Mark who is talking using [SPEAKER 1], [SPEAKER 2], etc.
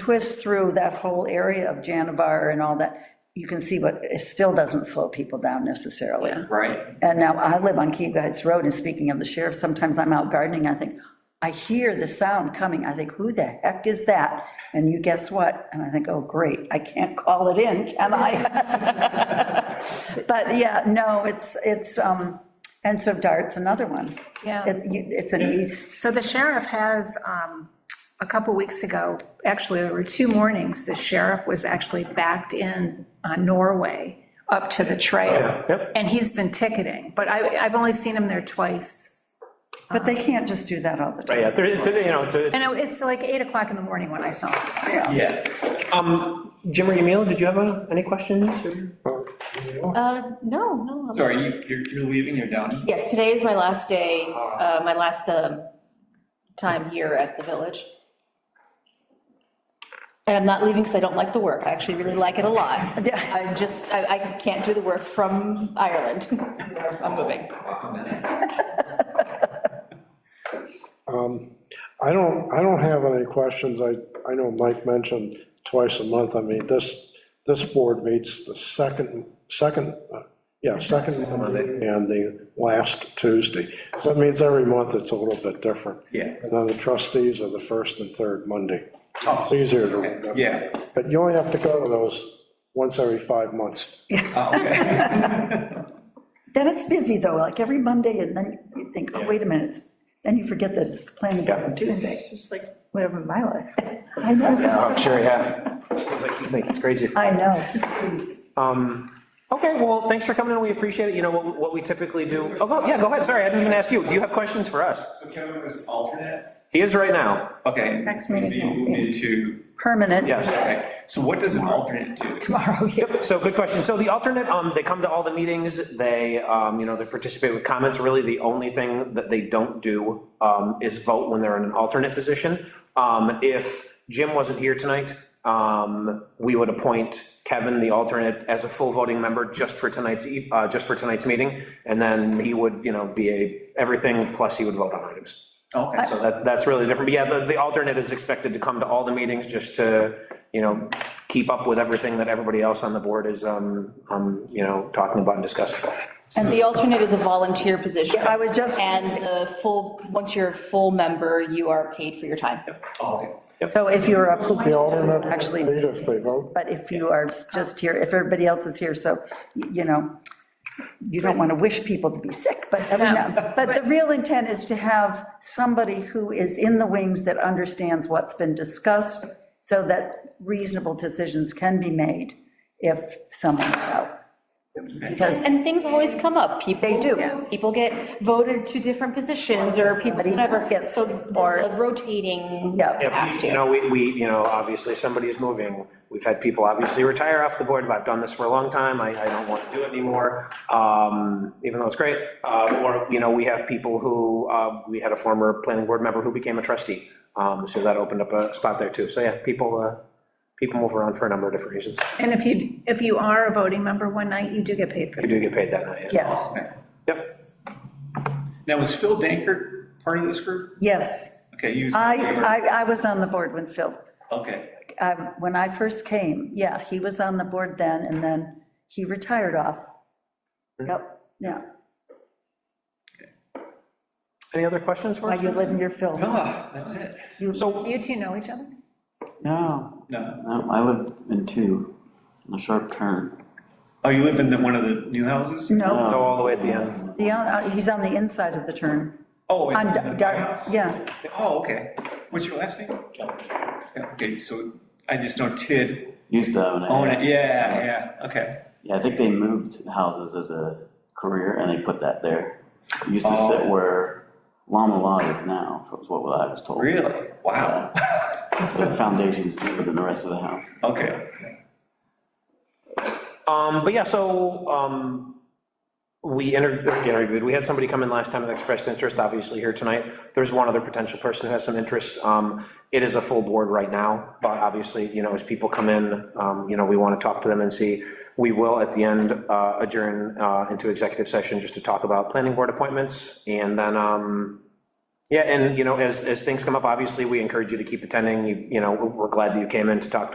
[SPEAKER 1] twist through that whole area of Janivar and all that, you can see, but it still doesn't slow people down necessarily.
[SPEAKER 2] Right,
[SPEAKER 1] And now, I live on Key Guides Road, and speaking of the sheriff, sometimes I'm out gardening, I think, I hear the sound coming, I think, who the heck is that? And you guess what? And I think, oh, great, I can't call it in, can I? But yeah, no, it's, it's, um, and so dart's another one.
[SPEAKER 3] Yeah.
[SPEAKER 1] It- you- It's an east,
[SPEAKER 3] So the sheriff has, um, a couple weeks ago, actually, there were two mornings, the sheriff was actually backed in on Norway up to the
[SPEAKER 4] Oh,
[SPEAKER 3] trail.
[SPEAKER 4] Yep.
[SPEAKER 3] And he's been ticketing, but I, I've only seen him there twice.
[SPEAKER 1] but they can't just do that all the time.
[SPEAKER 4] Right, yeah, there- it's, a- you know, it's, a-
[SPEAKER 3] And I- it's like 8 o'clock in the morning when I saw him.
[SPEAKER 2] yeah.
[SPEAKER 4] Jim or Emil, did you have uh, any questions?
[SPEAKER 5] Uh, no, no. I'm-
[SPEAKER 2] So are you, you're, you're leaving, you're done?
[SPEAKER 5] Yes, today is my last day, uh, my last um, time here at the village. And I'm not leaving because I don't like the work. I actually really like it a lot. I'm just, I, I can't do the work from Ireland. I'm moving.
[SPEAKER 2] Wow, nice.
[SPEAKER 6] I don't, I don't have any questions. I, I know Mike mentioned twice a month. I mean, this, this board meets the second, second, uh, yeah, second Monday and the last Tuesday. So it means every month it's a little bit different.
[SPEAKER 2] Yeah.
[SPEAKER 6] And then the trustees are the first and third Monday. It's easier to remember.
[SPEAKER 2] Yeah,
[SPEAKER 6] But you only have to go to those once every five months.
[SPEAKER 2] oh, okay,
[SPEAKER 1] Then it's busy, though, like every Monday, and then you think, oh, wait a minute, then you forget that it's planning board on Tuesday.
[SPEAKER 7] It's just like, whatever my life.
[SPEAKER 1] I know,
[SPEAKER 4] I'm sure, yeah. It's like, you think it's crazy.
[SPEAKER 1] I know.
[SPEAKER 4] Okay, well, thanks for coming in, we appreciate it, you know, what, what we typically do, oh, go, yeah, go ahead, sorry, I didn't even ask you, do you have questions for us?
[SPEAKER 8] So Kevin was alternate?
[SPEAKER 4] He is right now,
[SPEAKER 2] okay.
[SPEAKER 3] Next
[SPEAKER 8] He's
[SPEAKER 3] meeting.
[SPEAKER 8] being moved into,
[SPEAKER 1] Permanent.
[SPEAKER 4] yes.
[SPEAKER 8] okay, so what does an alternate do?
[SPEAKER 4] Yep, so good question. So the alternate, um, they come to all the meetings, they, um, you know, they participate with comments. Really, the only thing that they don't do, um, is vote when they're in an alternate position. Um, if Jim wasn't here tonight, um, we would appoint Kevin, the alternate, as a full voting member just for tonight's eve, uh, just for tonight's meeting. And then he would, you know, be a, everything, plus he would vote on items.
[SPEAKER 2] Okay, so
[SPEAKER 4] So that, that's really different, but yeah, the, the alternate is expected to come to all the meetings just to, you know, keep up with everything that everybody else on the board is, um, um, you know, talking about and discussing.
[SPEAKER 5] And the alternate is a volunteer position.
[SPEAKER 1] I was just-
[SPEAKER 5] And the full, once you're a full member, you are paid for your time.
[SPEAKER 1] So if you're up,
[SPEAKER 6] The alternate,
[SPEAKER 1] actually,
[SPEAKER 6] eight if they vote.
[SPEAKER 1] but if you are just here, if everybody else is here, so, y- you know, you don't want to wish people to be sick, but, every now- but the real intent is to have somebody who is in the wings that understands what's been discussed, so that reasonable decisions can be made if someone is out. Because
[SPEAKER 5] And things always come up. People.
[SPEAKER 1] They do.
[SPEAKER 5] People get voted to different positions or people,
[SPEAKER 1] Somebody
[SPEAKER 5] whatever.
[SPEAKER 1] gets-
[SPEAKER 5] So there's a rotating
[SPEAKER 1] Yeah. Yeah,
[SPEAKER 5] task
[SPEAKER 4] You
[SPEAKER 5] here.
[SPEAKER 4] know, we, we, you know, obviously somebody is moving, we've had people obviously retire off the board, but I've done this for a long time, I, I don't want to do it anymore, um, even though it's great. Uh, or, you know, we have people who, uh, we had a former planning board member who became a trustee, um, so that opened up a spot there too. So yeah, people, uh, people move around for a number of different reasons.
[SPEAKER 3] And if you, if you are a voting member one night, you do get paid for
[SPEAKER 4] You
[SPEAKER 3] it.
[SPEAKER 4] do get paid that night, yeah.
[SPEAKER 1] yes,
[SPEAKER 4] Yep.
[SPEAKER 8] Now, was Phil Dankert part of this group?
[SPEAKER 1] yes.
[SPEAKER 8] Okay, you.
[SPEAKER 1] I, I, I was on the board when Phil
[SPEAKER 8] Okay,
[SPEAKER 1] um, when I first came, yeah, he was on the board then, and then he retired off. Yep, yeah,
[SPEAKER 4] Any other questions for
[SPEAKER 1] while
[SPEAKER 4] us?
[SPEAKER 1] you live in your film.
[SPEAKER 8] ah, that's it.
[SPEAKER 3] You two know each other?
[SPEAKER 9] No,
[SPEAKER 8] No,
[SPEAKER 9] no, I lived in two, in a sharp turn. Um,
[SPEAKER 8] oh, you live in the, one of the new houses?
[SPEAKER 1] No,
[SPEAKER 4] Go all the way at the end.
[SPEAKER 1] the, uh, he's on the inside of the turn.
[SPEAKER 8] Oh, in
[SPEAKER 1] On,
[SPEAKER 8] the- the
[SPEAKER 1] Dart-
[SPEAKER 8] house?
[SPEAKER 1] yeah,
[SPEAKER 8] Oh, okay, what's your last name? Yeah, Okay, so I just know Tid,
[SPEAKER 9] Used to own it.
[SPEAKER 8] own it, yeah, yeah, okay.
[SPEAKER 9] Yeah, I think they moved houses as a career and they put that there. It Used to sit where Llama Lodge is now, was what I was told.
[SPEAKER 8] Really? Wow,
[SPEAKER 9] So the foundation's deeper than the rest of the house.
[SPEAKER 8] okay.
[SPEAKER 4] Um, but yeah, so, um, we interv- or interviewed, we had somebody come in last time that expressed interest, obviously here tonight. There's one other potential person who has some interest. Um, it is a full board right now, but obviously, you know, as people come in, um, you know, we want to talk to them and see. We will at the end uh, adjourn, uh, into executive session just to talk about planning board appointments and then, um, Yeah, and, you know, as, as things come up, obviously, we encourage you to keep attending, You- you know, we're glad that you came in to talk to